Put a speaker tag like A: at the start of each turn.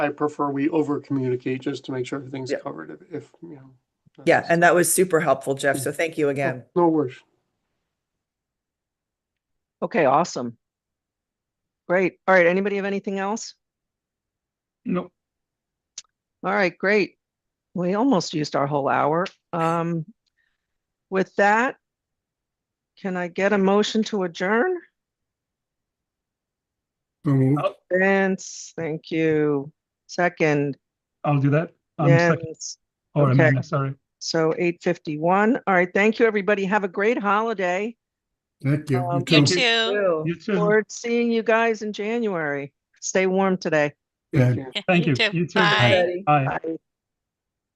A: I prefer we over communicate just to make sure everything's
B: Yeah.
A: covered if- if, you know. that's-
B: Yeah, and that was super helpful, Jeff. So thank you again.
A: No worries.
C: Okay, awesome. Great. All right, anybody have anything else?
D: No,
C: All right, great. We almost used our whole hour. Um, with that, can I get a motion to adjourn? Vince, thank you. Second,
D: I'll do that. Um, second,
C: Jens.
D: or
C: okay.
D: Amanda, sorry.
C: So eight fifty-one. All right, thank you, everybody. Have a great holiday.
E: Thank you.
C: Um,
E: You
F: You
E: too.
F: too.
D: You too.
C: Forward to seeing you guys in January. Stay warm today.
E: Yeah.
F: You
D: Thank you.
F: too.
D: You too.
F: Bye.
D: Bye.
C: Bye.